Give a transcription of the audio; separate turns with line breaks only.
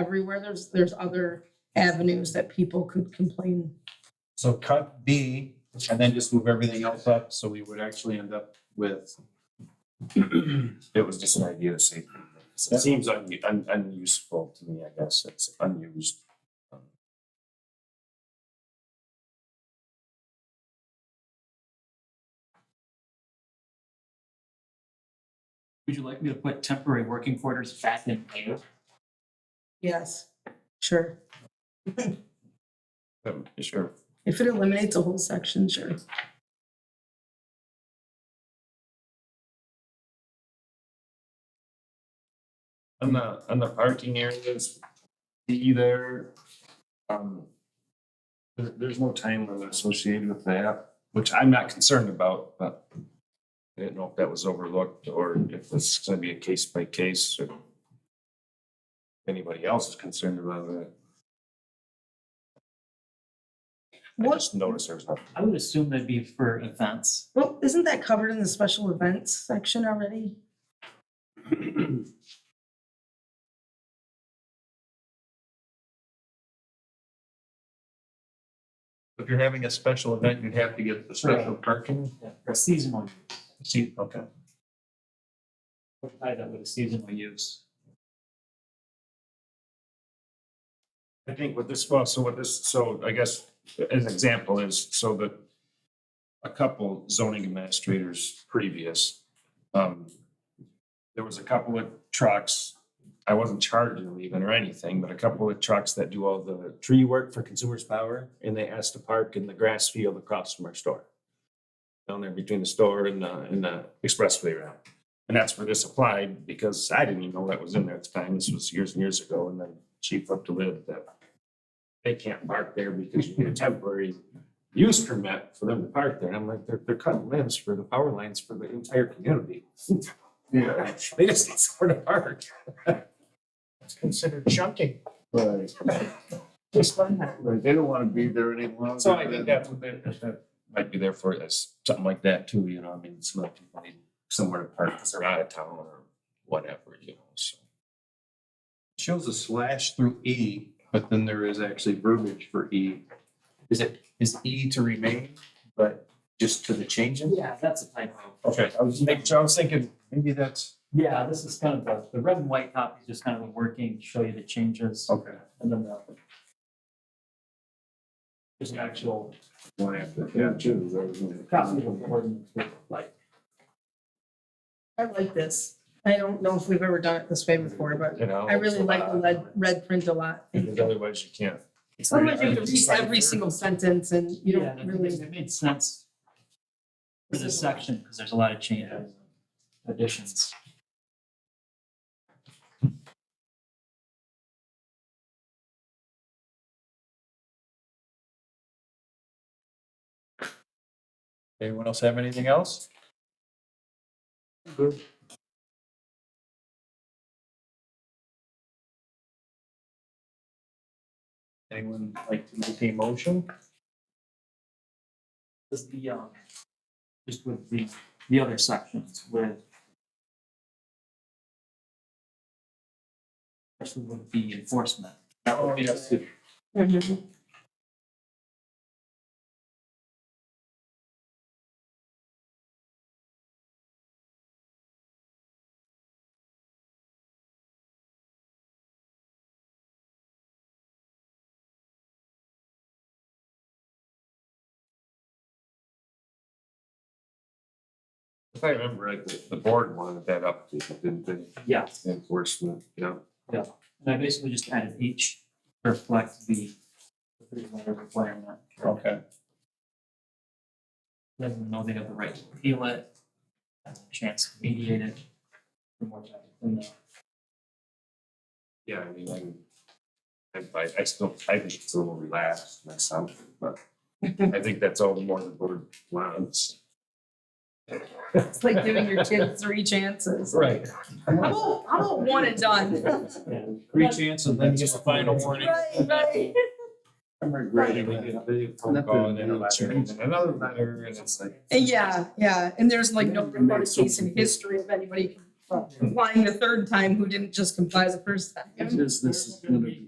everywhere. There's, there's other avenues that people could complain.
So cut B and then just move everything else up, so we would actually end up with.
It was just an idea to say,
Yeah.
it seems un- un- unuseful to me, I guess, it's unused.
Would you like me to put temporary working quarters back in there?
Yes, sure.
Um, Sure.
If it eliminates a whole section, sure.
On the, on the parking areas, be there, um, there, there's no time limit associated with that, which I'm not concerned about, but I didn't know if that was overlooked or if this is gonna be a case by case or if anybody else is concerned about that. I
What,
just noticed there's nothing.
I would assume that'd be for events.
well, isn't that covered in the special events section already?
If you're having a special event, you'd have to get the special parking.
For seasonal,
See, okay.
tie that with a seasonal use.
I think what this, well, so what this, so I guess as an example is so that a couple zoning administrators previous, um, there was a couple of trucks, I wasn't charging them even or anything, but a couple of trucks that do all the tree work for Consumers Power and they asked to park in the grass field across from our store. Down there between the store and the, and the expressway route. And that's where this applied because I didn't even know that was in there at the time. This was years and years ago and then chief up to live that they can't park there because you need a temporary use permit for them to park there. And I'm like, they're, they're cutting limbs for the power lines for the entire community. Yeah. They just need somewhere to park.
It's considered chunking.
Right.
Just like that.
They don't want to be there any longer.
So I think that's what they, that- that might be there for us, something like that too, you know, I mean, some other people need somewhere to park because they're out of town or whatever, you know, so.
Shows a slash through E, but then there is actually verbiage for E.
Is it, is E to remain, but just to the changes?
Yeah, that's a typo.
Okay, I was making sure, I was thinking, maybe that's.
Yeah, this is kind of the, the red and white copy is just kind of a working, show you the changes
Okay.
and then the just an actual
One after, yeah, two.
copy of the ordinance with like
I like this. I don't know if we've ever done it this way before, but
You know.
I really
so,
like the
uh,
red, red print a lot.
Because otherwise you can't.
Sometimes you have to read every single sentence and you
Yeah,
don't
and it made-
really.
It made sense for this section, because there's a lot of changes, additions.
Anyone else have anything else? Anyone like to make a motion?
Just the, um, just with the, the other sections with. Especially with the enforcement. That would be,
Mhm.
If I remember right, the, the board wanted that up, didn't they?
yeah,
Enforcement, yeah.
and I basically just added each to reflect the the three letter requirement.
Okay.
Let them know they have the right to appeal it, have a chance to mediate it. From what I can know.
Yeah, I mean, I'm- I'm, I, I still, I think it's a little relaxed myself, but I think that's all the more the board wants.
It's like giving your kid three chances.
Right.
How about, how about one and done?
Three chances, then you get the final warning.
Right, right.
I'm regretting. we did- they did phone call and then a letter, and then Another letter, and it's like.
Yeah, yeah, and there's like no
Yeah, and
reported
that's so
case in
confusing.
history of anybody Applying the third time who didn't just comply the first time.
Is this, is gonna be